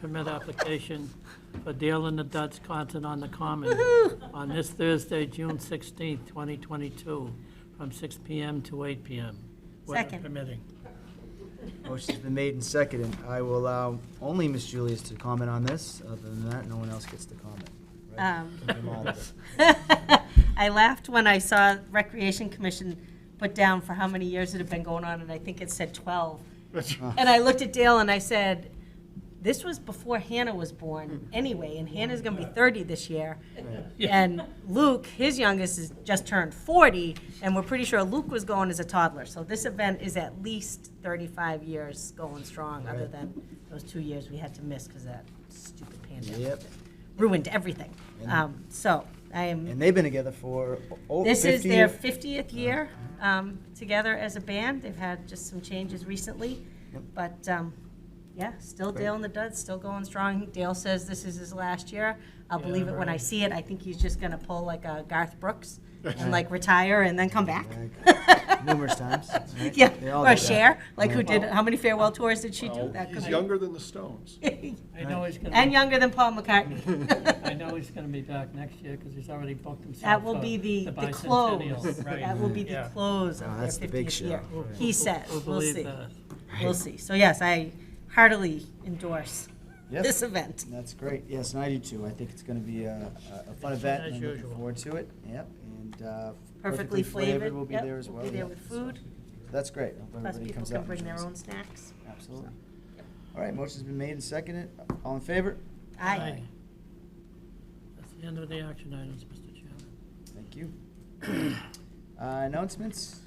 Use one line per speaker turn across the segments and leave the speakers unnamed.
permit application for Dale and the Dutch Concert on the Common on this Thursday, June 16th, 2022, from 6 PM to 8 PM. weather
Second.
Permitting.
Motion's been made and seconded. I will allow only Ms. Julius to comment on this. Other than that, no one else gets to comment. right?
Um,
Keep them all there.
I laughed when I saw Recreation Commission put down for how many years it had been going on, and I think it said 12. And I looked at Dale and I said, this was before Hannah was born anyway, and Hannah's gonna be 30 this year. And Luke, his youngest, has just turned 40, and we're pretty sure Luke was going as a toddler. So this event is at least 35 years going strong, other
Right.
than those two years we had to miss because that stupid pandemic
Yep.
ruined everything. Um, So I am
And Uh-huh. they've been together for over 50 years.
this is their 50th year um, together as a band. They've had just some changes recently.
Yep.
But um, yeah, still
Great.
Dale and the Duds, still going strong. Dale says this is his last year. I'll believe it when I
right.
see it. I think he's just going to pull like a Garth Brooks and like retire and then come back.
Like, Numerous times. right?
Yeah,
They all
or
do that.
Cher, like who
Yeah.
did, how many farewell tours did she do?
Well,
That
he's
could
younger than the Stones.
be-
I know he's
And
gonna,
younger than Paul McCartney.
I know he's gonna be back next year, because he's already booked himself.
That will
for
be the, the
bicentennial,
close.
right.
That will be the
Yeah.
close
Oh,
of their
that's the big
fiftieth year.
show, right.
He said,
Who
we'll
believed
see,
that?
we'll see. So yes, I heartily endorse
Yep.
this event.
That's great. Yes, and I do too. I think it's going to be a, a- a fun event.
as
and I'm looking
usual.
forward to it. Yep. And uh,
Perfectly flavored.
will be
Yep,
there as well.
We'll be there
yeah.
with
So
food,
That's great. Hope
plus
everybody
people
comes
can
out and
bring their
enjoys
own snacks.
it. Absolutely. All right, motion's been made and seconded. All in favor?
Aye.
That's the end of the action items, Mr. Chairman.
Thank you. Uh, Announcements?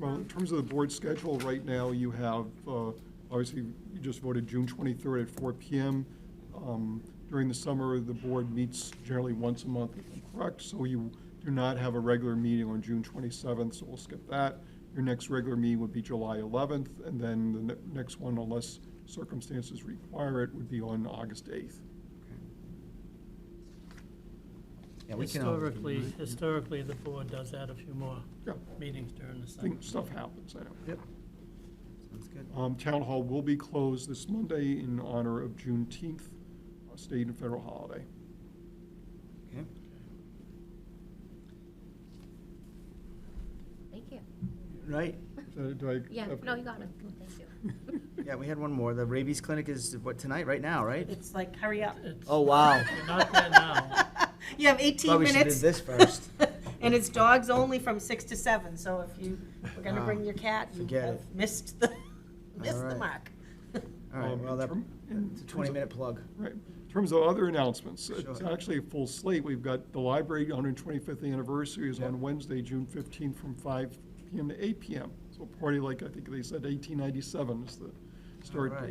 Well, in terms of the board schedule, right now, you have, uh, obviously, you just voted June 23rd at 4 PM. Um, During the summer, the board meets generally once a month, if I'm correct, so you do not have a regular meeting on June 27th, so we'll skip that. Your next regular meeting would be July 11th, and then the ne- next one, unless circumstances require it, would be on August 8th.
Yeah, we can uh, always do
Historically,
that.
historically, the board does add a few more
Yeah,
meetings during the
I
summer.
think stuff happens, I know.
Yep. Sounds good.
Um, Town Hall will be closed this Monday in honor of Juneteenth, a state and federal holiday.
Okay.
Thank you.
Right,
So do I-
Yeah,
okay.
no, you got it. Thank you.
yeah, we had one more. The rabies clinic is, what, tonight, right now, right?
It's like, hurry up.
It's-
Oh, wow.
You're not there now.
You have 18
Probably
minutes.
should have did this first.
And it's dogs only from six to seven, so if you were gonna
Wow.
bring your cat, you
Ah, Forget
have
it.
missed the, missed the
Alright.
mark.
All right,
Um,
well,
in
that-
term- in
that's a
terms of-
20-minute plug.
Right. In terms of other announcements, it's
Sure.
actually a full slate. We've got the library, 125th anniversary is
Yeah.
on Wednesday, June 15th, from 5 PM to 8 PM. So party like, I think they said 1897 is the start
All right.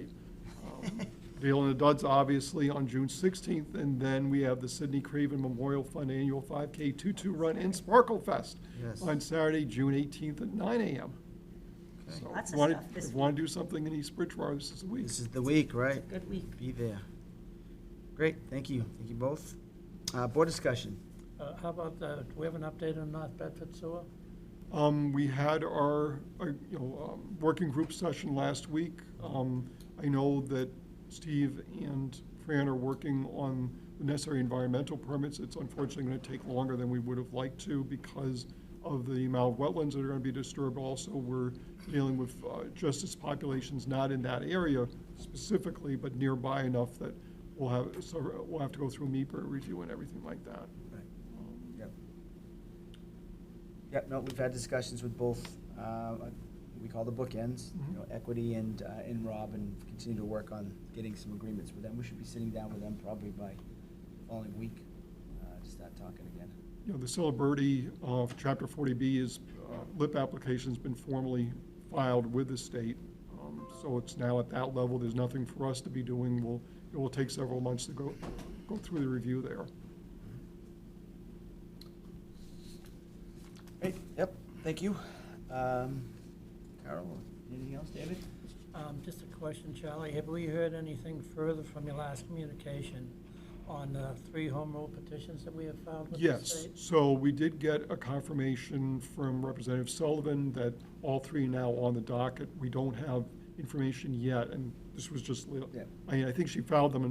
date. Um, Dale and the Duds, obviously, on June 16th, and then we have the Sidney Craven Memorial Fund Annual 5K Tutu Run and Sparkle Fest
Yes.
on Saturday, June 18th at 9 AM.
Okay.
So
Lots
if
of
you wanna-
stuff this
If you want to do something in East Bridgewater, this is the week.
This is the week, right?
Good week.
Be there. Great, thank you. Thank you both. Uh, Board discussion.
Uh, How about, uh, do we have an update on North Bedford sewer?
Um, we had our, our, you know, um, working group session last week. Um, I know that Steve and Fran are working on the necessary environmental permits. It's unfortunately gonna take longer than we would have liked to because of the amount of wetlands that are gonna be disturbed. Also, we're dealing with, uh, justice populations not in that area specifically, but nearby enough that we'll have, so we'll have to go through MIPA review and everything like that.
Yep. Yep, no, we've had discussions with both, uh, we call the bookends, you know, Equity and, uh, and Rob, and continue to work on getting some agreements with them. We should be sitting down with them probably by following week, uh, to start talking again.
You know, the Celebrity of Chapter 40B is, uh, LIP application's been formally filed with the state. Um, So it's now at that level. There's nothing for us to be doing. We'll, it will take several months to go, go through the review there.
Great, yep, thank you. Um, Carol, anything else, David?
Um, Just a question, Charlie. Have we heard anything further from your last communication on the three home rule petitions that we have filed with the
Yes,
state?
so we did get a confirmation from Representative Sullivan that all three are now on the docket. We don't have information yet, and this was just, li-
Yeah.
I mean, I think she filed them in